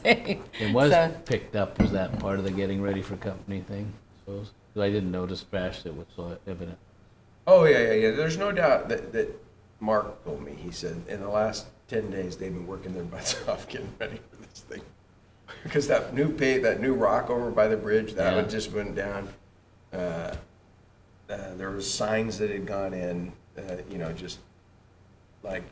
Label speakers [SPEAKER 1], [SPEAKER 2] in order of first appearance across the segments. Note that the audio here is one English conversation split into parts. [SPEAKER 1] day.
[SPEAKER 2] It was
[SPEAKER 1] So-
[SPEAKER 2] picked up, was that part of the getting ready for company thing? I suppose? 'Cause I didn't notice trash that was uh, so evident.
[SPEAKER 3] Oh, yeah, yeah, yeah. There's no doubt that, that Mark told me, he said, in the last ten days, they've been working their butts off getting ready for this thing. Because that new pay, that new rock over by the bridge, that
[SPEAKER 2] Yeah.
[SPEAKER 3] one just went down. Uh, uh, There was signs that had gone in, uh, you know, just like,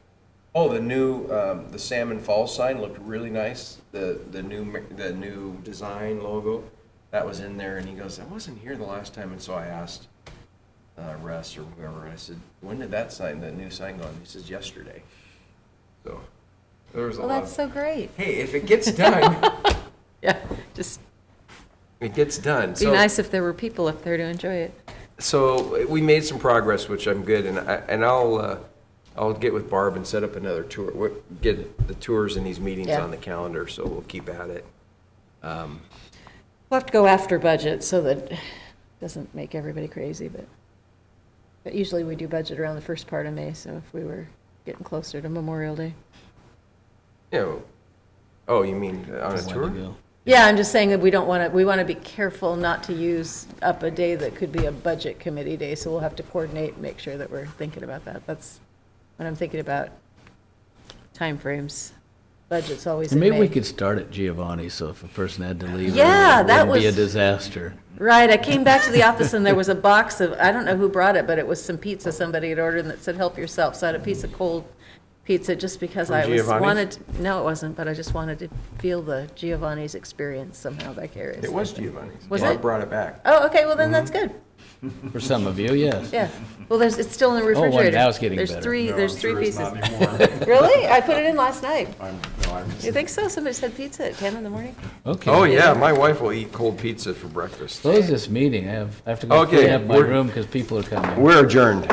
[SPEAKER 3] oh, the new, um, the Salmon Falls sign looked really nice. The, the new, ma- the new design logo, that was in there. And he goes, I wasn't here the last time. And so I asked uh, Russ or whoever. I said, when did that sign, that new sign go on? He says, yesterday. So there was a
[SPEAKER 1] Well,
[SPEAKER 3] lot.
[SPEAKER 1] that's so
[SPEAKER 3] of-
[SPEAKER 1] great.
[SPEAKER 3] Hey, if it gets done,
[SPEAKER 1] Yeah, just
[SPEAKER 3] it gets done.
[SPEAKER 1] be
[SPEAKER 3] So-
[SPEAKER 1] nice if there were people up there to enjoy it.
[SPEAKER 3] So we made some progress, which I'm good, and I, and I'll, uh, I'll get with Barb and set up another tour, We'll get the tours and these meetings
[SPEAKER 1] Yeah.
[SPEAKER 3] on the calendar, so we'll keep at it.
[SPEAKER 1] We'll have to go after budget so that it doesn't make everybody crazy, but, but usually we do budget around the first part of May, so if we were getting closer to Memorial Day.
[SPEAKER 3] You know, oh, you mean on a
[SPEAKER 2] Wanted to
[SPEAKER 3] tour?
[SPEAKER 2] go.
[SPEAKER 1] Yeah, I'm just saying that we don't want to, we want to be careful not to use up a day that could be a budget committee day, so we'll have to coordinate, and make sure that we're thinking about that. That's what I'm thinking about, timeframes. Budget's always in
[SPEAKER 2] And maybe we
[SPEAKER 1] May.
[SPEAKER 2] could start at Giovanni, so if a person had to leave.
[SPEAKER 1] Yeah,
[SPEAKER 2] it
[SPEAKER 1] that
[SPEAKER 2] wouldn't Be a
[SPEAKER 1] was-
[SPEAKER 2] disaster.
[SPEAKER 1] Right, I came back to the office and there was a box of, I don't know who brought it, but it was some pizza somebody had ordered and it said, help yourself. So I had a piece of cold pizza just because
[SPEAKER 3] From
[SPEAKER 1] I was
[SPEAKER 3] Giovanni's?
[SPEAKER 1] wanted, no, it wasn't, but I just wanted to feel the Giovanni's experience somehow
[SPEAKER 3] It
[SPEAKER 1] vicariously.
[SPEAKER 3] was Giovanni's.
[SPEAKER 1] Was
[SPEAKER 3] Barb
[SPEAKER 1] it?
[SPEAKER 3] brought it back.
[SPEAKER 1] Oh, okay, well then that's
[SPEAKER 3] Mm-hmm.
[SPEAKER 1] good.
[SPEAKER 2] For some of you, yes.
[SPEAKER 1] Yeah. Well, there's, it's still in the
[SPEAKER 2] Oh, well,
[SPEAKER 1] refrigerator.
[SPEAKER 2] now it's getting better.
[SPEAKER 1] There's three,
[SPEAKER 4] No,
[SPEAKER 1] there's
[SPEAKER 4] I'm
[SPEAKER 1] three
[SPEAKER 4] sure it's
[SPEAKER 1] pieces.
[SPEAKER 4] not anymore.
[SPEAKER 1] Really? I put it in last night.
[SPEAKER 4] I'm- no, I'm-
[SPEAKER 1] You think so? Somebody said pizza at 10 in the morning?
[SPEAKER 2] Okay.
[SPEAKER 3] Oh, yeah, my wife will eat cold pizza for breakflix
[SPEAKER 2] Close this meeting. I have, I have to go
[SPEAKER 3] Okay,
[SPEAKER 2] clean up my
[SPEAKER 3] we're-
[SPEAKER 2] room because people are coming.
[SPEAKER 3] We're adjourned.